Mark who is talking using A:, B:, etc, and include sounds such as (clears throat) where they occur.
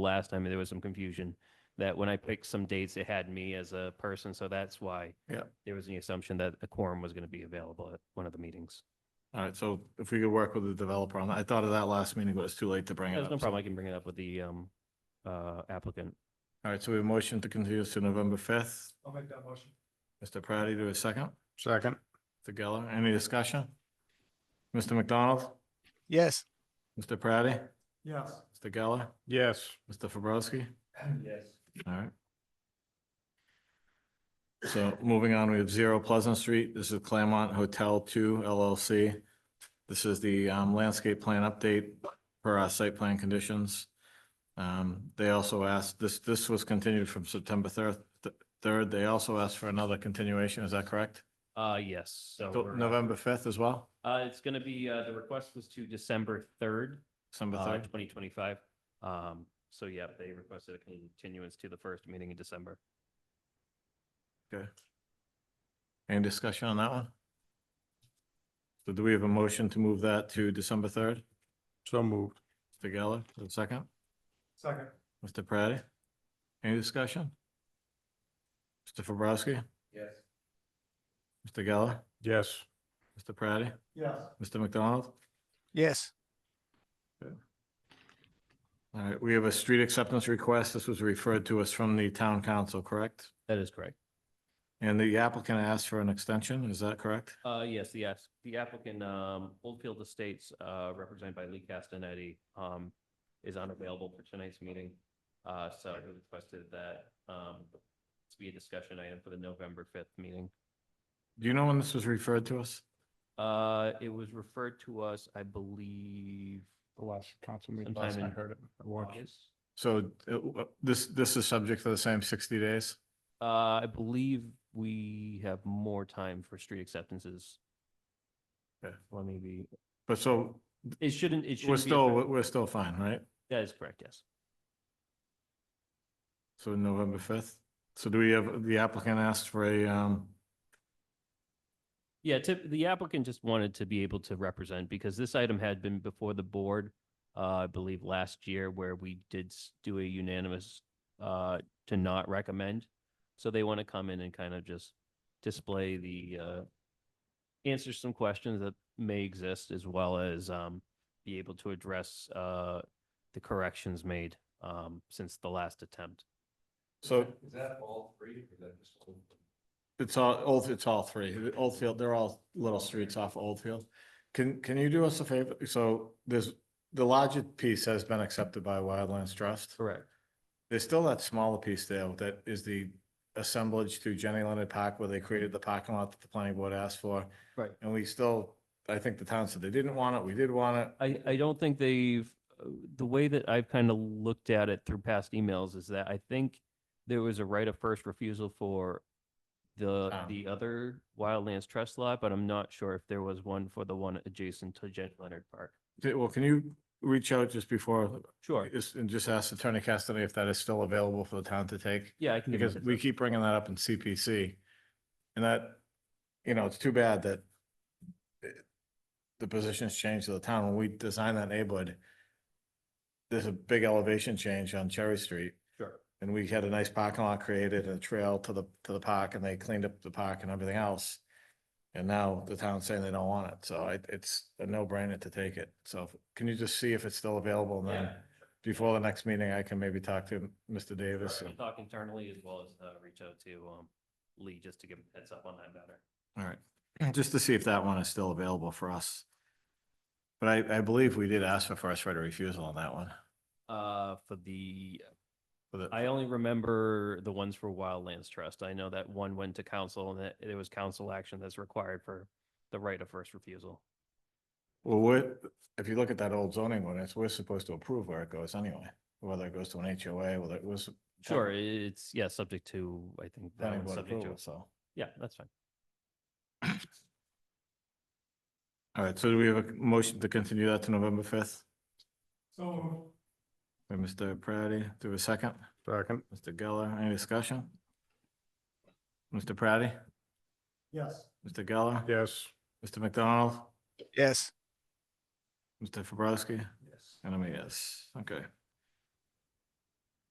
A: last time, there was some confusion that when I picked some dates, it had me as a person, so that's why
B: Yeah.
A: there was the assumption that a quorum was going to be available at one of the meetings.
B: All right, so if we could work with the developer on that, I thought of that last meeting, but it's too late to bring it
A: There's
B: up.
A: no
B: so-
A: problem. I can bring it up with the um, uh, applicant.
B: All right, so we have a motion to continue this to November fifth. I'll make that motion. Mr. Praddy, do a second.
C: Second.
B: Mr. Geller, any discussion? Mr. McDonald,
C: Yes.
B: Mr. Praddy,
C: Yes.
B: Mr. Geller,
C: Yes.
B: Mr. Fabrowski,
C: (clears throat) Yes.
B: all right. So moving on, we have Zero Pleasant Street. This is Claremont Hotel Two LLC. This is the um, landscape plan update for our site plan conditions. Um, They also asked, this, this was continued from September third, third. They also asked for another continuation, is that correct?
A: Uh, yes, so.
B: Till
A: we're, uh,
B: November fifth as well,
A: Uh, it's going to be, uh, the request was to December third,
B: December
A: uh,
B: third.
A: twenty twenty-five. Um, so yeah, they requested a continuance to the first meeting in December.
B: Any discussion on that one? So do we have a motion to move that to December third?
C: So moved.
B: Mr. Geller, is it second?
C: Second.
B: Mr. Praddy? Any discussion? Mr. Fabrowski?
C: Yes.
B: Mr. Geller?
C: Yes.
B: Mr. Praddy?
C: Yes.
B: Mr. McDonald?
C: Yes.
B: All right, we have a street acceptance request. This was referred to us from the town council, correct?
A: That is correct.
B: And the applicant asked for an extension, is that correct?
A: Uh, yes, the, ass- the applicant, um, Oldfield Estates, uh, represented by Lee Castanetti, um, is unavailable for tonight's meeting. Uh, so I requested that, um, to be a discussion item for the November fifth meeting.
B: Do you know when this was referred to us?
A: Uh, it was referred to us, I believe,
C: The last council meeting.
A: Sometime
C: Last I
A: in
C: heard it. I watched.
A: August.
B: So uh, this, this is subject to the same sixty days?
A: Uh, I believe we have more time for street acceptances.
B: Okay.
A: Let me be,
B: But so
A: it shouldn't, it should
B: we're still, we're still fine, right?
A: That is correct, yes.
B: So November fifth. So do we have, the applicant asked for a, um,
A: Yeah, tip, the applicant just wanted to be able to represent because this item had been before the board, uh, I believe last year where we did s- do a unanimous, uh, to not recommend. So they want to come in and kind of just display the, uh, answer some questions that may exist as well as, um, be able to address, uh, the corrections made, um, since the last attempt.
B: so
D: Is that all three or is that just? one?
B: It's all, Old, it's all three. The Oldfield, they're all little streets off Oldfield. Can, can you do us a favor? So there's, the larger piece has been accepted by Wildlands Trust.
A: Correct.
B: There's still that smaller piece there that is the assemblage to Jenny Leonard Park where they created the parking lot that the planning board asked for.
A: Right.
B: And we still, I think the town said they didn't want it, we did want it.
A: I, I don't think they've, uh, the way that I've kind of looked at it through past emails is that I think there was a right of first refusal for the,
B: Ah.
A: the other Wildlands Trust lot, but I'm not sure if there was one for the one adjacent to Jen Leonard Park.
B: Okay, Well, can you reach out just before,
A: Sure,
B: just- and just ask Attorney Cassidy if that is still available for the town to take?
A: yeah, I can. give you
B: because
A: a heads
B: we
A: up.
B: keep bringing that up in CPC. And that, you know, it's too bad that it- the positions changed to the town. When we designed that neighborhood, there's a big elevation change on Cherry Street.
A: Sure.
B: And we had a nice parking lot created, a trail to the, to the park, and they cleaned up the park and everything else. And now the town's saying they don't want it, so it, it's a no-brainer to take it. So can you just see if it's still available? And then
A: Yeah.
B: before the next meeting, I can maybe talk to Mr. Davis.
A: Sure.
B: and-
A: We'll Talk internally as well as, uh, reach out to, um, Lee just to give him a heads up on that matter.
B: All right, just to see if that one is still available for us. But I, I believe we did ask for first right of refusal on that one.
A: Uh, for the
B: for the-
A: I only remember the ones for Wildlands Trust. I know that one went to council and that there was council action that's required for the right of first refusal.
B: Well, we're, if you look at that old zoning ordinance, we're supposed to approve where it goes anyway, whether it goes to an HOA, whether it was.
A: Sure, it's, yeah, subject to, I think that
B: Planning
A: one's
B: board
A: subject
B: approval,
A: to,
B: so.
A: yeah, that's fine.
B: All right, so do we have a motion to continue that to November fifth?
C: So.
B: By Mr. Praddy, do a second.
C: Second.
B: Mr. Geller, any discussion? Mr. Praddy,
C: Yes.
B: Mr. Geller?
C: Yes.
B: Mr. McDonald,
C: Yes.
B: Mr. Fabrowski?
D: Yes.
B: And I mean, yes, okay.